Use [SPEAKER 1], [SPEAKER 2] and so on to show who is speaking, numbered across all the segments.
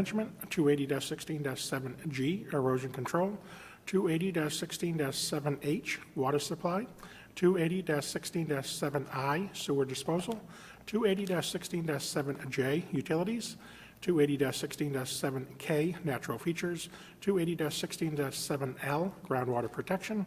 [SPEAKER 1] Management, 280-16-7G, Erosion Control, 280-16-7H, Water Supply, 280-16-7I, Sewer Disposal, 280-16-7J, Utilities, 280-16-7K, Natural Features, 280-16-7L, Groundwater Protection,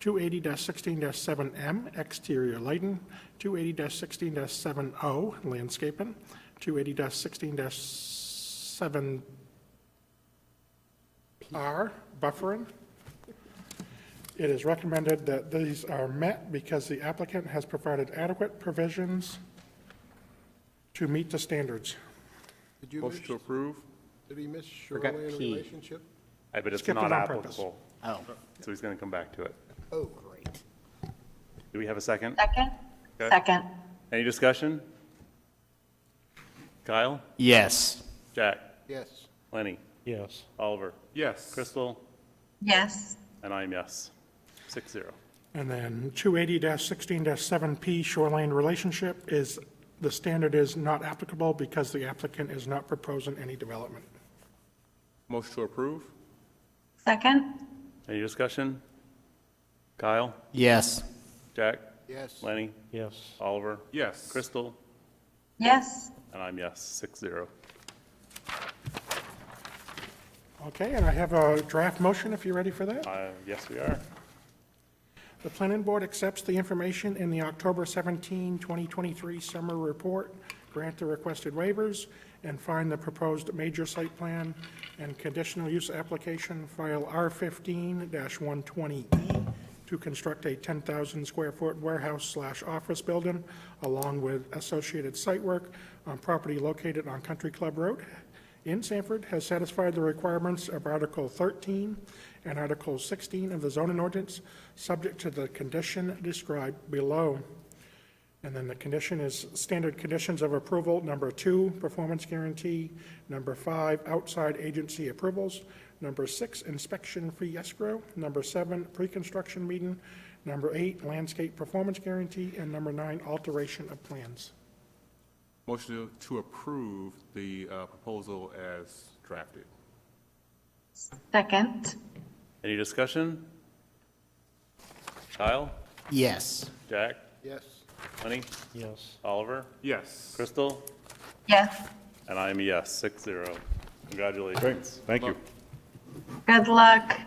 [SPEAKER 1] 280-16-7M, exterior lighting, 280-16-7O, landscaping, 280-16-7R, buffering. It is recommended that these are met because the applicant has provided adequate provisions to meet the standards.
[SPEAKER 2] Did you miss,
[SPEAKER 3] Motion to approve?
[SPEAKER 2] did he miss
[SPEAKER 4] Forgot
[SPEAKER 2] shoreline
[SPEAKER 4] P.
[SPEAKER 2] relationship?
[SPEAKER 3] I bet it's
[SPEAKER 1] Skipped it
[SPEAKER 3] not
[SPEAKER 1] on purpose.
[SPEAKER 3] applicable,
[SPEAKER 4] Oh,
[SPEAKER 3] so he's going to come back to it.
[SPEAKER 2] Oh, great.
[SPEAKER 3] Do we have a second?
[SPEAKER 5] Second?
[SPEAKER 3] Okay.
[SPEAKER 5] Second.
[SPEAKER 3] Any discussion? Kyle?
[SPEAKER 4] yes.
[SPEAKER 3] Jack?
[SPEAKER 2] Yes.
[SPEAKER 3] Lenny?
[SPEAKER 1] Yes.
[SPEAKER 3] Oliver?
[SPEAKER 6] Yes.
[SPEAKER 3] Crystal?
[SPEAKER 5] Yes.
[SPEAKER 3] And I'm yes. Six zero.
[SPEAKER 1] And then 280-16-7P shoreline relationship is, the standard is not applicable because the applicant is not proposing any development.
[SPEAKER 6] Motion to approve?
[SPEAKER 5] Second?
[SPEAKER 3] Any discussion? Kyle?
[SPEAKER 4] Yes.
[SPEAKER 3] Jack?
[SPEAKER 2] Yes.
[SPEAKER 3] Lenny? Yes. Oliver?
[SPEAKER 6] Yes.
[SPEAKER 3] Crystal?
[SPEAKER 5] Yes.
[SPEAKER 3] And I'm yes. Six zero.
[SPEAKER 1] Okay, and I have a draft motion if you're ready for that.
[SPEAKER 3] Uh, yes, we are.
[SPEAKER 1] The planning board accepts the information in the October 17, 2023 summer report, grant the requested waivers, and find the proposed major site plan and conditional use application file R15-120E E to construct a 10,000 square foot warehouse slash office building along with associated site work on property located on Country Club Road in Sanford has satisfied the requirements of Article 13 and Article 16 of the zoning ordinance, subject to the condition described below. And then the condition is standard conditions of approval, number two, performance guarantee, number five, outside agency approvals, number six, inspection fee escrow, number seven, pre-construction meeting, number eight, landscape performance guarantee, and number nine, alteration of plans.
[SPEAKER 6] Motion to- to approve the uh, proposal as drafted.
[SPEAKER 5] Second?
[SPEAKER 3] Any discussion? Kyle?
[SPEAKER 4] Yes.
[SPEAKER 3] Jack?
[SPEAKER 2] Yes.
[SPEAKER 3] Lenny? Yes. Oliver?
[SPEAKER 6] Yes.
[SPEAKER 3] Crystal?
[SPEAKER 5] Yes.
[SPEAKER 3] And I'm a yes, six zero. Congratulations.
[SPEAKER 7] Thank you.
[SPEAKER 5] Good luck.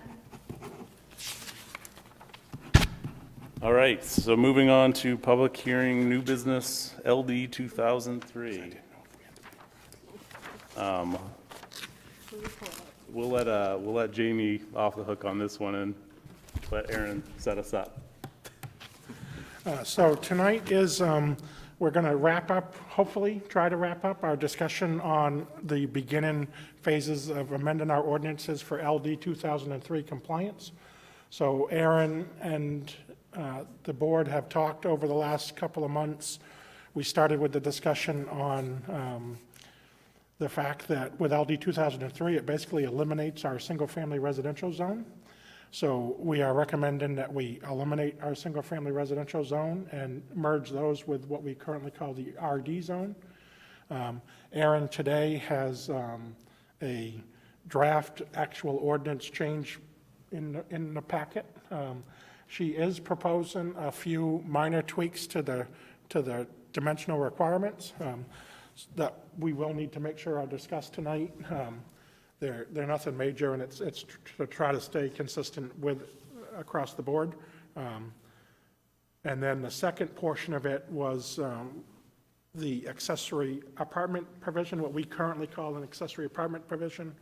[SPEAKER 3] All right, so moving on to public hearing, new business, LD 2003. Um, We'll let, uh, we'll let Jamie off the hook on this one and let Aaron set us up.
[SPEAKER 1] Uh, So tonight is, um, we're going to wrap up, hopefully, try to wrap up our discussion on the beginning phases of amending our ordinances for LD 2003 compliance. So Aaron and uh, the board have talked over the last couple of months. We started with the discussion on um, the fact that with LD 2003, it basically eliminates our single-family residential zone. So we are recommending that we eliminate our single-family residential zone and merge those with what we currently call the RD zone. Um, Aaron today has um, a draft actual ordinance change in, the- in the packet. Um, She is proposing a few minor tweaks to the, to the dimensional requirements um, that we will need to make sure are discussed tonight. Um, They're, they're nothing major, and it's, it's to try to stay consistent with, across the board. Um, And then the second portion of it was um, the accessory apartment provision, what we currently call an accessory apartment provision,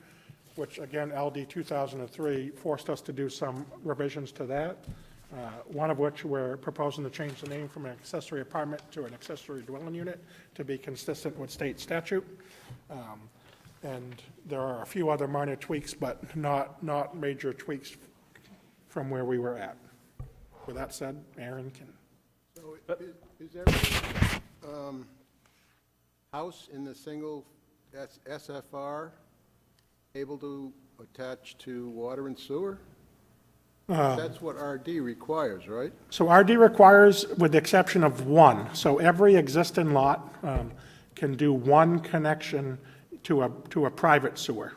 [SPEAKER 1] which again, LD 2003 forced us to do some revisions to that, uh, one of which we're proposing to change the name from an accessory apartment to an accessory dwelling unit to be consistent with state statute. Um, And there are a few other minor tweaks, but not, not major tweaks from where we were at. With that said, Aaron can,
[SPEAKER 2] So i- i- is every um, house in the single S- SFR able to attach to water and sewer? That's what RD requires, right?
[SPEAKER 1] So RD requires, with the exception of one, so every existing lot um, can do one connection to a, to a private sewer.